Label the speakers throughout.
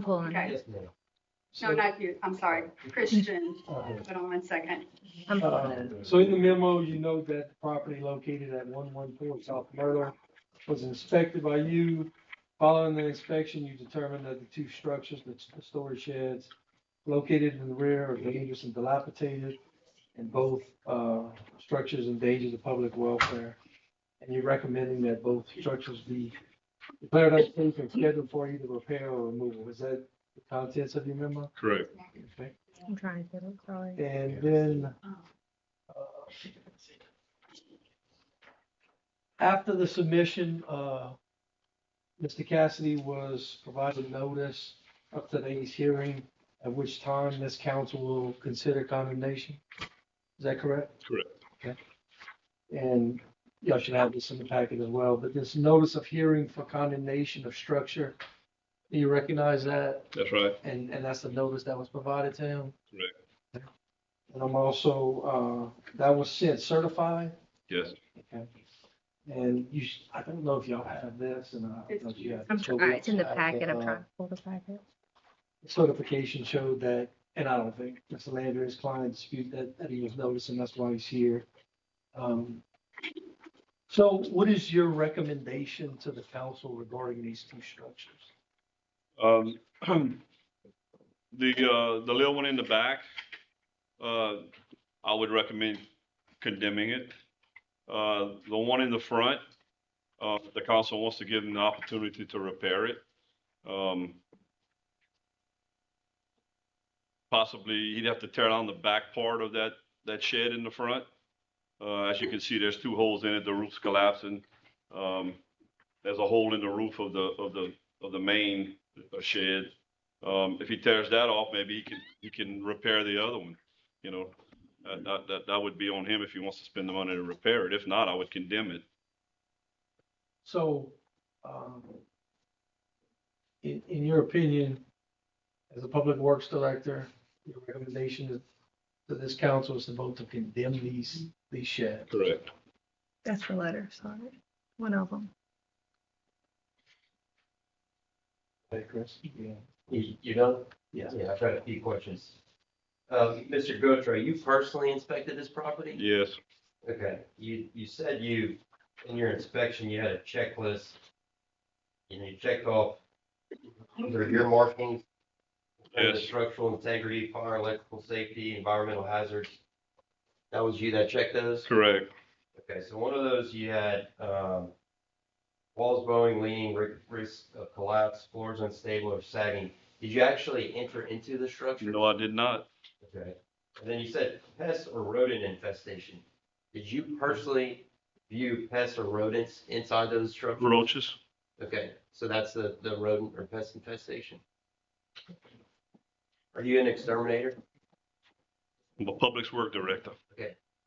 Speaker 1: pulling it.
Speaker 2: Okay,
Speaker 3: Yes, ma'am.
Speaker 2: no,
Speaker 4: So-
Speaker 2: not you, I'm sorry, Christian,
Speaker 3: Uh,
Speaker 2: hold on one second.
Speaker 1: I'm pulling it.
Speaker 4: uh, So in the memo, you note that the property located at one one four South Myrtle was inspected by you. Following the inspection, you determined that the two structures, the the storage sheds located in the rear are dangerous and dilapidated. And both, uh, structures endanger the public welfare. And you're recommending that both structures be declared unsafe and scheduled for either repair or removal. Is that the contents of your memo?
Speaker 5: Correct.
Speaker 4: Okay.
Speaker 1: I'm trying to get it, sorry.
Speaker 4: And then. uh, After the submission, uh, Mr. Cassidy was provided notice of today's hearing, at which time this council will consider condemnation. Is that correct?
Speaker 5: Correct.
Speaker 4: Okay. And y'all should have this in the packet as well, but this notice of hearing for condemnation of structure, do you recognize that?
Speaker 5: That's right.
Speaker 4: And, and that's the notice that was provided to him?
Speaker 5: Correct.
Speaker 4: And I'm also, uh, that was sent certified,
Speaker 5: Yes.
Speaker 4: okay? And you, s- I don't know if y'all have this and I don't know if you have.
Speaker 1: I'm
Speaker 4: so
Speaker 1: trying, it's in the
Speaker 4: I think,
Speaker 1: packet, I'm
Speaker 4: uh,
Speaker 1: trying to pull the packet.
Speaker 4: Certification showed that, and I don't think Mr. Landry's client disputed that, that he was noticed and that's why he's here. Um, So what is your recommendation to the council regarding these two structures?
Speaker 5: Um, the, uh, the little one in the back, uh, I would recommend condemning it. Uh, the one in the front, uh, the council wants to give them the opportunity to repair it. Um, possibly he'd have to tear down the back part of that, that shed in the front. Uh, as you can see, there's two holes in it. The roof's collapsing. Um, there's a hole in the roof of the, of the, of the main uh, shed. Um, if he tears that off, maybe he can, he can repair the other one, you know? That, that- that, that would be on him if he wants to spend the money to repair it. If not, I would condemn it.
Speaker 4: So, um, in, in your opinion, as a public works director, your recommendation to- to this council is to vote to condemn these, these sheds.
Speaker 5: Correct.
Speaker 1: That's the letter, sorry. One of them.
Speaker 4: Okay, Chris? Yeah.
Speaker 3: You, you know?
Speaker 4: Yeah.
Speaker 3: Yeah, I've got a few questions. Um, Mr. Gotro, you personally inspected this property?
Speaker 5: Yes,
Speaker 3: Okay, you, you said you, in your inspection, you had a checklist. And you checked off under your markings. under the
Speaker 5: Yes.
Speaker 3: Structural integrity, fire, electrical safety, environmental hazards. That was you that checked those?
Speaker 5: correct.
Speaker 3: Okay, so one of those you had, um, walls bowing, leaning, ri- risk of collapse, floors unstable or sagging. Did you actually enter into the structure?
Speaker 5: No, I did not.
Speaker 3: Okay, and then you said pest or rodent infestation. Did you personally view pests or rodents inside those structures?
Speaker 5: Roaches?
Speaker 3: Okay, so that's the, the rodent or pest infestation. Are you an exterminator?
Speaker 5: I'm a public work director.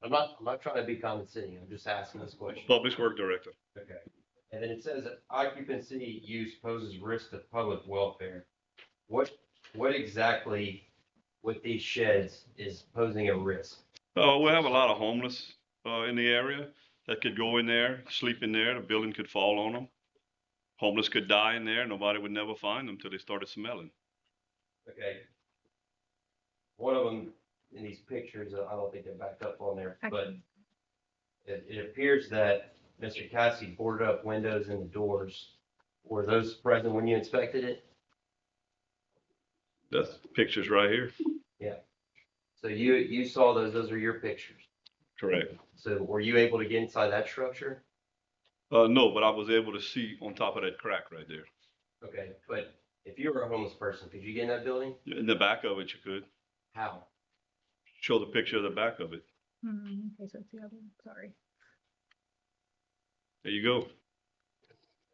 Speaker 3: I'm not, I'm not trying to be condescending, I'm just asking this question.
Speaker 5: Public work director.
Speaker 3: Okay, and then it says that occupancy use poses risk to public welfare. What, what exactly with these sheds is posing a risk?
Speaker 5: Uh, we have a lot of homeless, uh, in the area that could go in there, sleep in there. The building could fall on them. Homeless could die in there. Nobody would never find them till they started smelling.
Speaker 3: Okay. One of them in these pictures, I don't think they're backed up on there,
Speaker 1: I
Speaker 3: but
Speaker 1: can-
Speaker 3: it, it appears that Mr. Cassie boarded up windows and the doors. Were those present when you inspected it?
Speaker 5: That's the pictures right here.
Speaker 3: So you, you saw those, those are your pictures.
Speaker 5: Correct.
Speaker 3: So were you able to get inside that structure?
Speaker 5: Uh, no, but I was able to see on top of that crack right there.
Speaker 3: Okay, but if you were a homeless person, could you get in that building?
Speaker 5: In the back of it, you could
Speaker 3: How?
Speaker 5: show the picture of the back of it.
Speaker 1: Hmm, Okay, so it's the other one, sorry.
Speaker 5: There you go.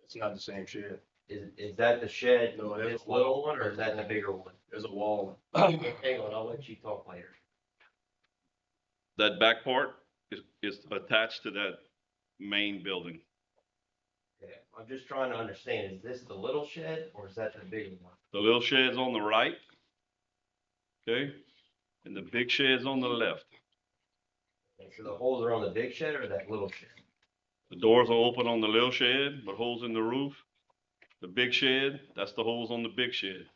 Speaker 6: It's not the same shed.
Speaker 3: Is, is that the shed,
Speaker 6: No, that's
Speaker 3: this
Speaker 6: a wall.
Speaker 3: little one, or is that the bigger one?
Speaker 6: There's a wall.
Speaker 3: Hang on, I'll let you talk later.
Speaker 5: That back part is, is attached to that main building.
Speaker 3: Okay, I'm just trying to understand, is this the little shed, or is that the bigger one?
Speaker 5: The little shed's on the right. Okay? And the big shed's on the left.
Speaker 3: Okay, So the holes are on the big shed or that little shed?
Speaker 5: The doors are open on the little shed, but holes in the roof. The big shed, that's the holes on the big shed.